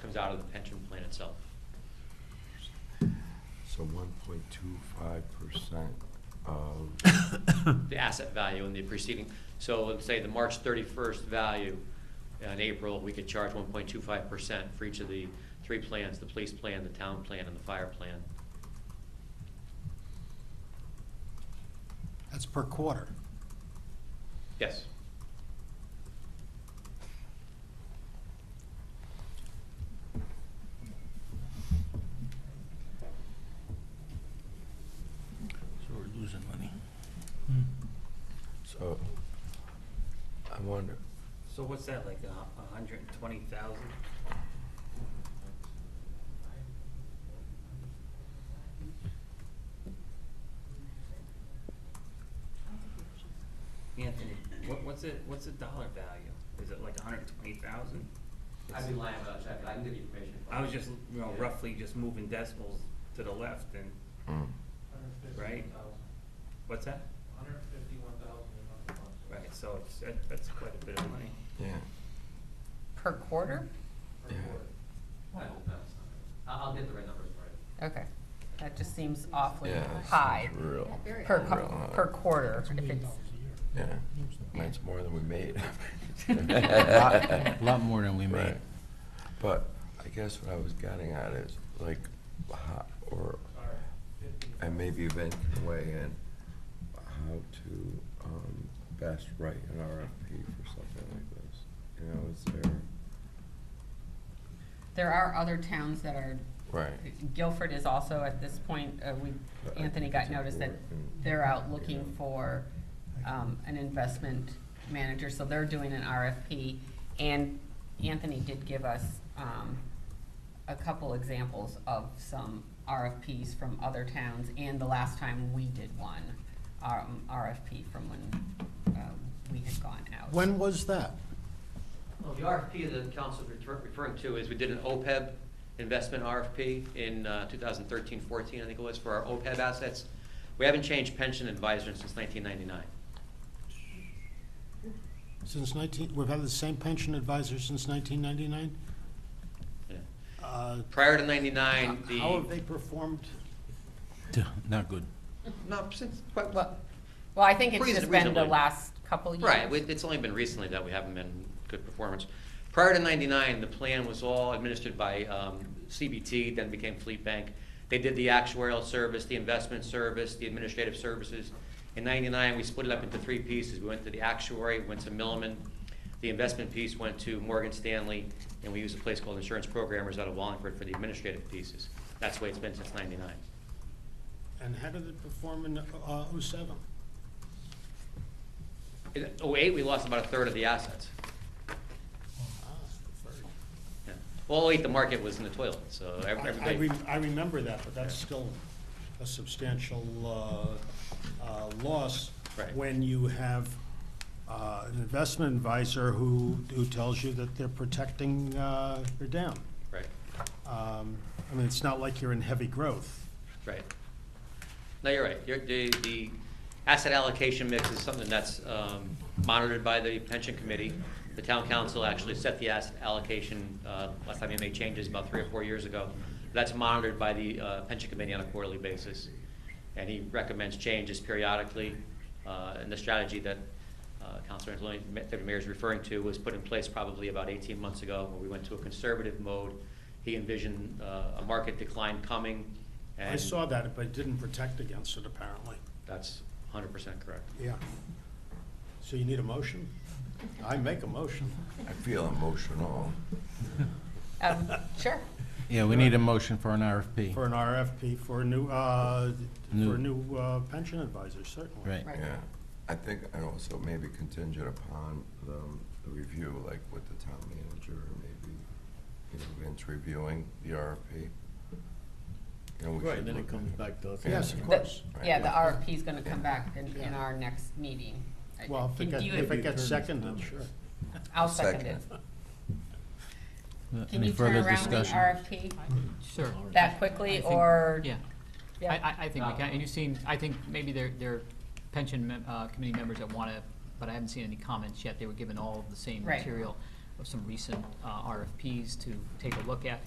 comes out of the pension plan itself. So one point two five percent of, the asset value in the preceding, so let's say the March thirty-first value uh, in April, we could charge one point two five percent for each of the three plans, the police plan, the town plan, and the fire plan. That's per quarter. Yes. So we're losing money. so, I wonder, So what's that, like a hu- a hundred and twenty thousand? Anthony, what, what's it, what's the dollar value? Is it like a hundred and twenty thousand? I'd be lying about that, I can give you information. I was just, you know, roughly just moving decimals to the left and, mm, Right. what's that? Hundred fifty-one thousand and one bucks Right, so it's, that, that's quite a bit of money. yeah, Per quarter? per Yeah. quarter. I hope that's not, I'll, I'll get the right numbers for you. Okay, that just seems awfully yeah. that high seems Real, per, real co- high. per quarter. If it's, Yeah, that's more than we made. Lot lot more than we made. Right. But I guess what I was getting at is, like, how, or, Sorry, fifty. and maybe Vince can weigh in, how to, um, best write an RFP for something like this. You know, is there, there are other towns that are, right, Guilford is also at this point, uh, we, Anthony got notice that they're out looking for, um, an investment manager, so they're doing an RFP. And Anthony did give us, um, a couple examples of some RFPs from other towns, and the last time we did one, um, RFP from when, um, we had gone out. When was that? Well, the RFP that the council is refer- referring to is, we did an OPEB investment RFP in uh, 2013, 14, I think it was, for our OPEB assets. We haven't changed pension advisor since 1999. Since 19, we've had the same pension advisor since 1999? Yeah. Uh, Prior to 99, the. How have they performed? Not good. No, since, quite, Well, well, I think it's just been the Reasonably. last couple of years. Right, we- it's only been recently that we haven't been good performance. Prior to ninety-nine, the plan was all administered by um, CBT, then became Fleet Bank. They did the actuarial service, the investment service, the administrative services. In ninety-nine, we split it up into three pieces. We went to the actuary, went to Milliman. The investment piece went to Morgan Stanley, and we used a place called Insurance Programmers out of Wallingford for the administrative pieces. That's the way it's been since ninety-nine. And how did it perform in uh, 07? In oh-eight, we lost about a third of the assets. Ah, the third. Yeah. Well, oh eight, the market was in the toilet, so I- I everybody. rem- I remember that, but that's still a substantial uh, uh, loss. Right. When you have uh, an investment advisor who, who tells you that they're protecting uh, your down. Right, Um, I mean, it's not like you're in heavy growth. right. No, you're right. You're, the, the asset allocation mix is something that's, um, monitored by the pension committee. The town council actually set the asset allocation, uh, last time they made changes about three or four years ago. That's monitored by the, uh, pension committee on a quarterly basis. And he recommends changes periodically, uh, and the strategy that, uh, Councilor Angeloni, Ma- Deputy Mayor is referring to was put in place probably about eighteen months ago, where we went to a conservative mode. He envisioned, uh, a market decline coming, I and saw that, but it didn't protect against it apparently. That's hundred percent correct. Yeah. So you need a motion? I make a motion. I feel emotional. Um, sure. Yeah, we need a motion for an RFP. For an RFP for a new, uh, for New. a new uh, pension advisor, certainly. Right. Right. Yeah, I think, and also maybe contingent upon the, um, the review, like with the town manager, or maybe, you know, Vince reviewing the RFP. You know, we Right, should then look it at comes back to us. Yes, of The- course. Yeah, the Right. RFP is gonna come back in, in Yeah. our next meeting. I- Well, if can- it gets, do you- if it Maybe gets attorney's time. seconded, sure. I'll second it. Uh, Can Any you turn further around the discussion? RFP Sure. that I quickly, think- or? Yeah. I, I, I think we can, and you've seen, I think maybe there, there are pension mem- uh, committee members that wanna, but I haven't seen any comments yet, they were given all of the same Right. material. of some recent uh, RFPs to take a look at.